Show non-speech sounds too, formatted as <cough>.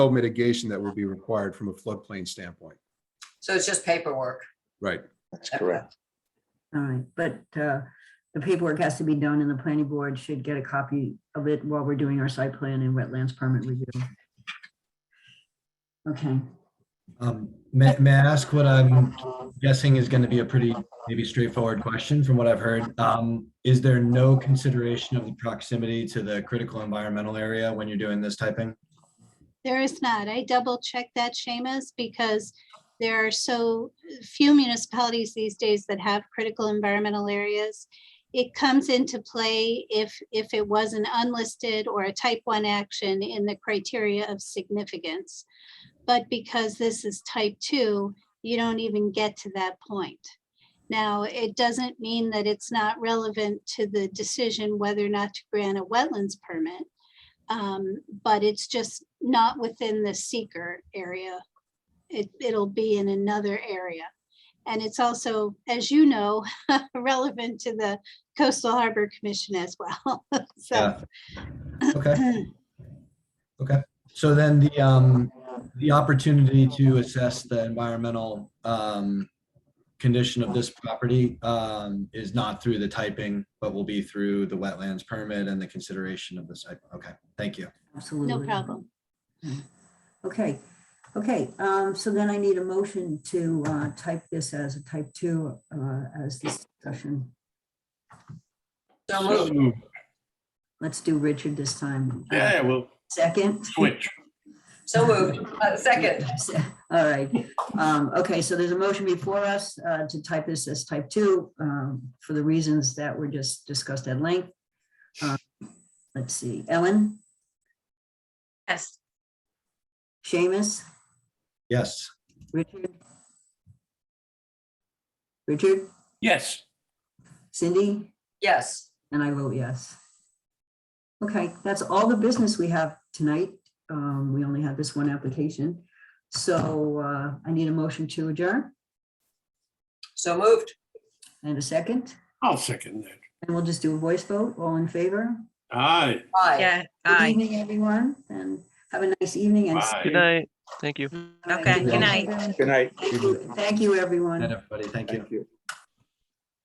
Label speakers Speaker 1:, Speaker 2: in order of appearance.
Speaker 1: mitigation that would be required from a floodplain standpoint.
Speaker 2: So it's just paperwork.
Speaker 1: Right.
Speaker 3: That's correct.
Speaker 4: All right, but uh, the paperwork has to be done and the planning board should get a copy of it while we're doing our site plan and wetlands permit review. Okay,
Speaker 5: Um, may, may I ask what I'm guessing is going to be a pretty maybe straightforward question from what I've heard? Um, is there no consideration of the proximity to the critical environmental area when you're doing this typing?
Speaker 6: There is not. I double checked that, Seamus, because there are so few municipalities these days that have critical environmental areas. It comes into play if, if it was an unlisted or a type one action in the criteria of significance. But because this is type two, you don't even get to that point. Now, it doesn't mean that it's not relevant to the decision whether or not to grant a wetlands permit. Um, but it's just not within the seeker area. It, it'll be in another area. And it's also, as you know, <laughs> relevant to the Coastal Harbor Commission as well. <laughs> So,
Speaker 5: Yeah. Okay. Okay, so then the, um, the opportunity to assess the environmental, um, condition of this property, um, is not through the typing, but will be through the wetlands permit and the consideration of the site. Okay, thank you.
Speaker 4: absolutely.
Speaker 6: no problem.
Speaker 4: Okay, okay, um, so then I need a motion to uh, type this as a type two, uh, as this discussion.
Speaker 2: So moved.
Speaker 4: Let's do Richard this time. Uh,
Speaker 3: Yeah, we'll
Speaker 4: Second?
Speaker 3: switch.
Speaker 2: So moved. Uh, Second,
Speaker 4: <laughs> All right, um, okay, so there's a motion before us, uh, to type this as type two, um, for the reasons that were just discussed at length. Um, Let's see, Ellen,
Speaker 7: Yes,
Speaker 4: Seamus,
Speaker 5: Yes,
Speaker 4: Richard? Richard,
Speaker 3: Yes,
Speaker 4: Cindy,
Speaker 2: yes.
Speaker 4: and I vote yes. Okay, that's all the business we have tonight, um, we only have this one application, so, uh, I need a motion to adjourn
Speaker 2: So moved.
Speaker 4: and a second,
Speaker 3: I'll second that.
Speaker 4: and we'll just do a voice vote, all in favor?
Speaker 3: Aye,
Speaker 2: Aye.
Speaker 7: yeah,
Speaker 4: Good
Speaker 7: aye.
Speaker 4: evening, everyone, and have a nice evening. and-
Speaker 8: Good
Speaker 3: aye.
Speaker 8: night. Thank you.
Speaker 7: Okay, good night.
Speaker 4: Thank you, everyone.
Speaker 5: and everybody, thank you.